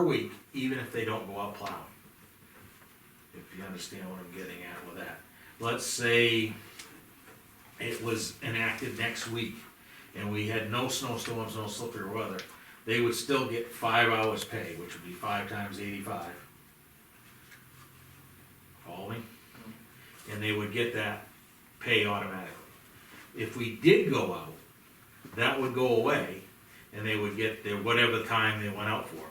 per week, even if they don't go out plowing. If you understand what I'm getting at with that. Let's say it was enacted next week and we had no snowstorms, no slippery weather, they would still get five hours pay, which would be five times eighty-five. Follow me? And they would get that pay automatically. If we did go out, that would go away and they would get their whatever time they went out for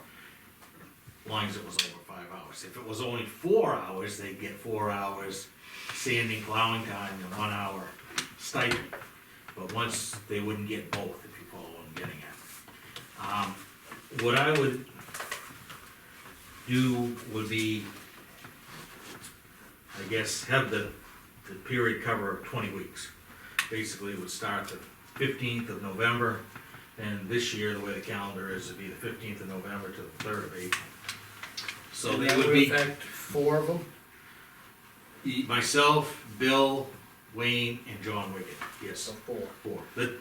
long as it was over five hours. If it was only four hours, they'd get four hours sanding, plowing time, and one hour stipend. But once, they wouldn't get both, if you follow what I'm getting at. Um, What I would do would be, I guess, have the, the period cover of twenty weeks. Basically, it would start the fifteenth of November, and this year, the way the calendar is, it'd be the fifteenth of November to the third of April. So And they that would be. affect Four of them? E- Myself, Bill, Wayne, and John Wigan, yes, So four. four. But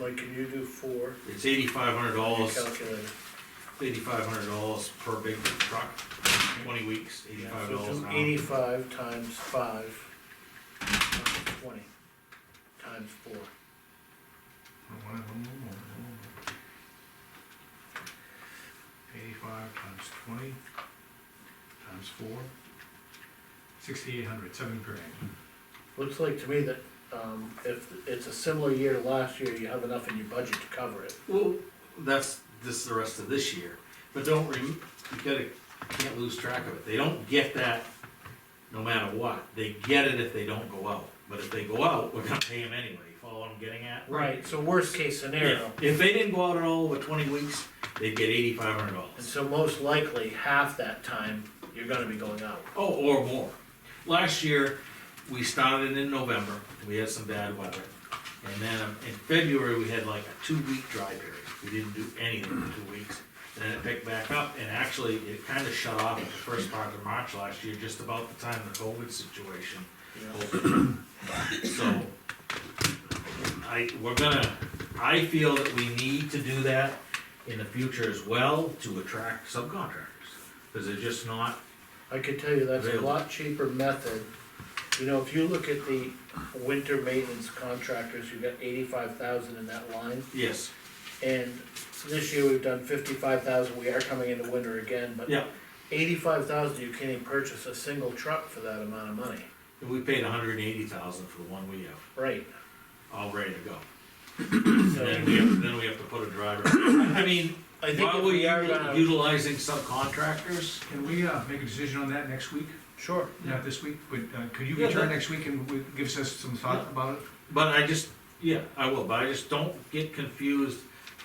Mike, can you do four? it's eighty-five hundred You dollars, calculate it. eighty-five hundred dollars per big truck, twenty weeks, eighty-five So dollars an do hour. eighty-five times five, times twenty, times four. Eighty-five times twenty, times four, sixty-eight hundred, seven grand. Looks like to me that, um, if it's a similar year to last year, you have enough in your budget to cover it. Well, that's, this is the rest of this year, but don't rem, you gotta, you can't lose track of it, they don't get that no matter what, they get it if they don't go out, but if they go out, we're gonna pay them anyway, You follow what I'm getting at? Right, so worst case Yeah, scenario, if they didn't go out at all over twenty weeks, they'd get eighty-five hundred dollars. and so most likely, half that time, you're gonna be going out. Oh, or more. Last year, we started in November, we had some bad weather. And then um, in February, we had like a two-week dry period. We didn't do anything for two weeks. Then it picked back up, and actually, it kind of shut off at the first part of March last year, just about the time the COVID situation you know? opened. So, I, we're gonna, I feel that we need to do that in the future as well to attract subcontractors. Because they're just not I could tell you that's a Available. lot cheaper method. You know, if you look at the winter maintenance contractors, you've got eighty-five thousand in that line. Yes, And this year we've done fifty-five thousand, we are coming into winter again, but yeah, eighty-five thousand, you can't even purchase a single truck for that amount of money. and we paid hundred and eighty thousand for the one we have, Right, all ready to go. And so then we have, then we have to put a driver. I mean, I think while if we are we're gonna, utilizing subcontractors, Can we, uh, make a decision on that next week? sure, Not this week, but, uh, could you Yeah, return that- next week and w- gives us some thought Yeah. about it? but I just, yeah, I will, but I just don't get confused,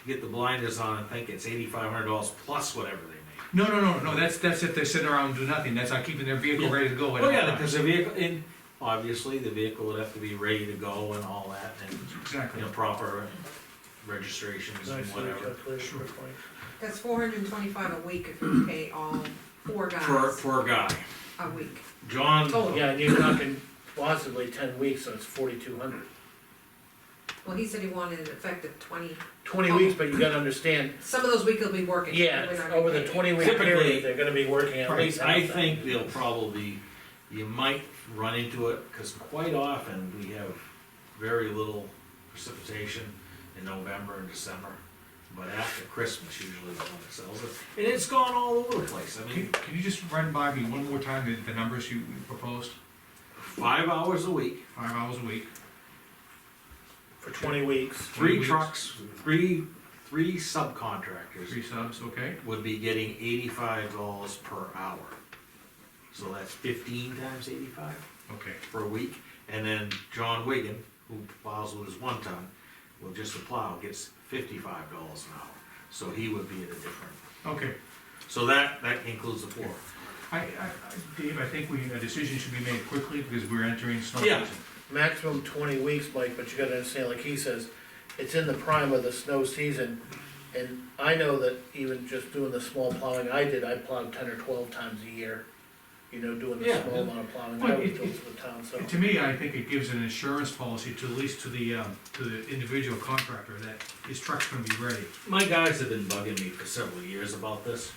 get the blinders on and think it's eighty-five hundred dollars plus whatever they No, no, no, no, that's, that's if they're sitting around and do nothing, that's not keeping their vehicle Yeah. ready to go. make. at Oh, all yeah, times. because the vehicle, and obviously, the vehicle would have to be ready to go and all that, and, Exactly. you know, proper registrations and nicely whatever. calculated Sure. quickly. That's four hundred and twenty-five a week if you pay all four For, guys for a guy, a week. John. Total. Yeah, and you're talking possibly ten weeks, so it's forty-two hundred. Well, he said he wanted it effective twenty, Twenty weeks, but you gotta understand, some of those weeks he'll be working. yeah, We're not over the gonna pay twenty-week Typically- period, they're gonna be working at least half I that. think they'll probably, you might run into it, because quite often we have very little precipitation in November and December. But after Christmas usually the one that sells it, and it's gone all over the place, I Can, mean, can you just run by me one more time the, the numbers you you proposed, five hours a week, five hours a week? For twenty weeks. Three three weeks. trucks, three, three subcontractors Three subs, okay? would be getting eighty-five dollars per hour. So that's fifteen times eighty-five? Okay. for a week, and then John Wigan, who plows with his one ton, will just a plow, gets fifty-five dollars an hour. So he would be at a different, Okay. so that, that includes the four. I, I, I- Dave, I think we, a decision should be made quickly because we're entering snow Yeah. season. maximum twenty weeks, Mike, but you gotta understand, like he says, it's in the prime of the snow season. And I know that even just doing the small plowing I did, I plowed ten or twelve times a year, you know, doing the Yeah. small amount of plowing Well, I was it- doing for the town, so. To me, I think it gives an insurance policy to at least to the, um, to the individual contractor that his truck's gonna be ready. My guys have been bugging me for several years about this,